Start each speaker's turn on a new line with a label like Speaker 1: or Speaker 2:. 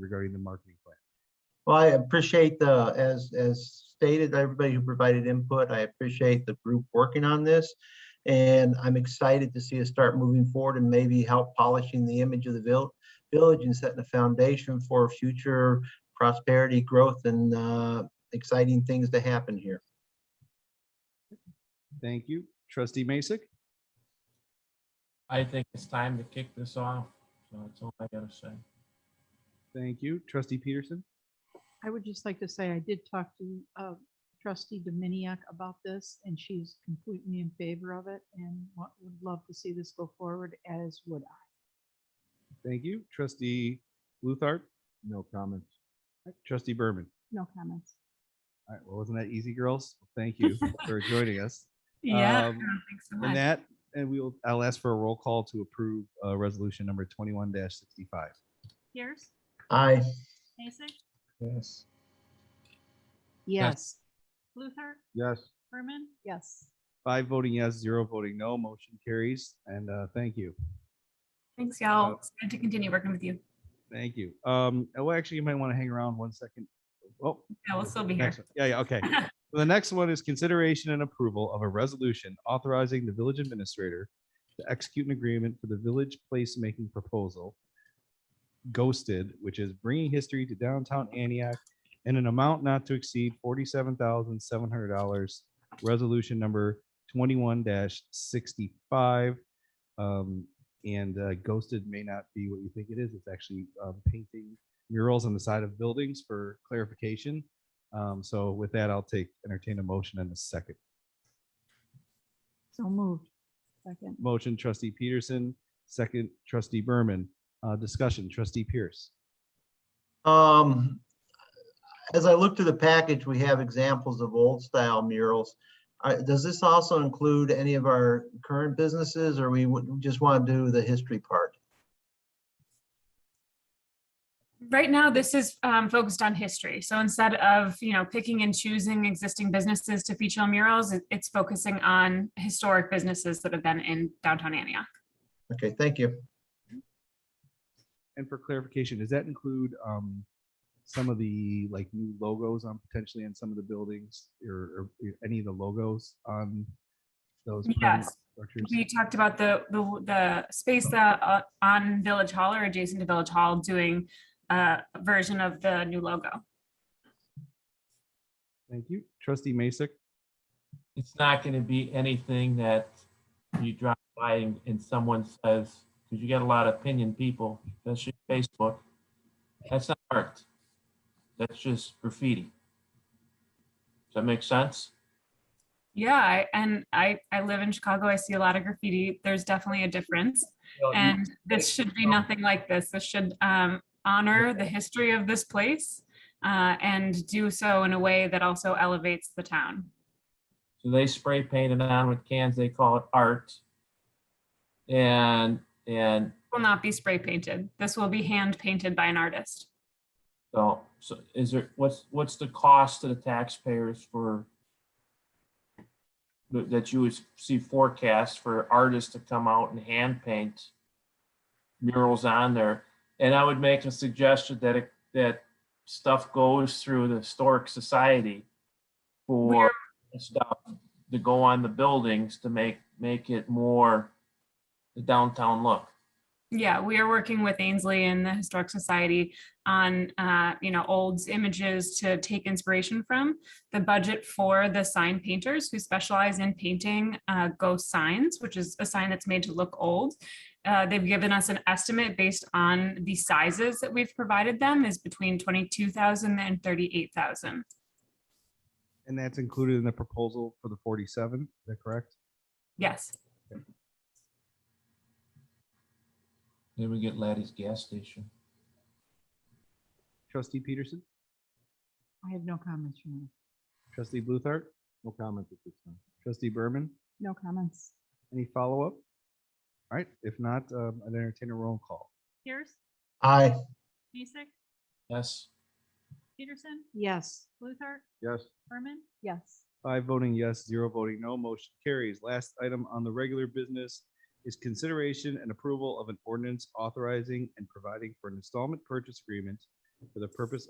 Speaker 1: regarding the marketing plan.
Speaker 2: Well, I appreciate the, as, as stated, everybody who provided input, I appreciate the group working on this. And I'm excited to see us start moving forward and maybe help polishing the image of the vil- village and setting a foundation for future prosperity, growth and, uh, exciting things to happen here.
Speaker 1: Thank you. Trustee Masek,
Speaker 3: I think it's time to kick this off. So that's all I gotta say.
Speaker 1: thank you. Trustee Peterson,
Speaker 4: I would just like to say I did talk to uh, trustee Dominiac about this and she's completely in favor of it and wa- would love to see this go forward as would I.
Speaker 1: thank you. Trustee Luthart? No comments. Trustee Berman?
Speaker 4: No comments.
Speaker 1: All right, well, wasn't that easy, girls? Thank you for joining us.
Speaker 5: Yeah,
Speaker 1: Um,
Speaker 5: thanks so
Speaker 1: And
Speaker 5: much.
Speaker 1: that, and we will, I'll ask for a roll call to approve uh, resolution number twenty-one sixty-five.
Speaker 5: Pierce,
Speaker 2: Aye.
Speaker 5: Mason,
Speaker 2: Yes.
Speaker 4: Yes,
Speaker 5: Luther,
Speaker 1: Yes.
Speaker 5: Berman,
Speaker 4: yes.
Speaker 1: Five voting yes, zero voting no, motion carries, and uh, thank you.
Speaker 5: thanks y'all. It's good to continue working with you.
Speaker 1: Thank you. Um, oh, actually, you might want to hang around one second. Oh,
Speaker 5: Yeah, we'll still be here.
Speaker 1: next one. Yeah, yeah, okay. The next one is consideration and approval of a resolution authorizing the village administrator to execute an agreement for the village placemaking proposal, Ghosted, which is bringing history to downtown Antioch in an amount not to exceed forty-seven thousand seven hundred dollars. Resolution number twenty-one sixty-five. Um, and uh, Ghosted may not be what you think it is. It's actually um, painting murals on the side of buildings for clarification. Um, so with that, I'll take, entertain a motion in a second.
Speaker 4: So moved. Second,
Speaker 1: Motion trustee Peterson, second trustee Berman, uh, discussion trustee Pierce.
Speaker 2: Um, as I look through the package, we have examples of old style murals. Uh, does this also include any of our current businesses or we would just want to do the history part?
Speaker 5: Right now, this is um, focused on history. So instead of, you know, picking and choosing existing businesses to feature on murals, it- it's focusing on historic businesses that have been in downtown Antioch.
Speaker 2: Okay, thank you.
Speaker 1: And for clarification, does that include, um, some of the like new logos on potentially on some of the buildings or, or any of the logos on those? permanent
Speaker 5: Yes.
Speaker 1: structures?
Speaker 5: We talked about the, the, the space that uh, on Village Hall or adjacent to Village Hall doing uh, a version of the new logo.
Speaker 1: Thank you. Trustee Masek,
Speaker 3: It's not gonna be anything that you drop by and, and someone says, because you get a lot of opinion people, especially Facebook. That's not art. That's just graffiti. Does that make sense?
Speaker 5: Yeah, I, and I, I live in Chicago. I see a lot of graffiti. There's definitely a difference.
Speaker 3: Well, you-
Speaker 5: And this should be nothing like this. This should um, honor the history of this place uh, and do so in a way that also elevates the town.
Speaker 3: So they spray painted on with cans, they call it art. And, and
Speaker 5: Will not be spray painted. This will be hand painted by an artist.
Speaker 3: so, so is there, what's, what's the cost to the taxpayers for that that you would see forecasts for artists to come out and hand paint murals on there? And I would make a suggestion that it, that stuff goes through the historic society for
Speaker 5: Where-
Speaker 3: stuff to go on the buildings to make, make it more the downtown look.
Speaker 5: Yeah, we are working with Ainsley and the Historic Society on, uh, you know, old images to take inspiration from. The budget for the sign painters who specialize in painting uh, ghost signs, which is a sign that's made to look old. Uh, They've given us an estimate based on the sizes that we've provided them is between 22,000 and 38,000.
Speaker 1: and that's included in the proposal for the forty-seven, is that correct?
Speaker 5: Yes.
Speaker 3: Then we get Laddie's gas station.
Speaker 1: Trustee Peterson,
Speaker 4: I have no comments from you.
Speaker 1: trustee Bluthart? No comment at this time. Trustee Berman?
Speaker 4: No comments.
Speaker 1: Any follow-up? All right, if not, um, I'd entertain a roll call.
Speaker 5: Pierce,
Speaker 2: Aye.
Speaker 5: Mason,
Speaker 3: Yes.
Speaker 5: Peterson,
Speaker 4: Yes,
Speaker 5: Luther,
Speaker 1: Yes.
Speaker 5: Berman.
Speaker 4: yes.
Speaker 1: Five voting yes, zero voting no, motion carries. Last item on the regular business is consideration and approval of an ordinance authorizing and providing for an installment purchase agreement for the purpose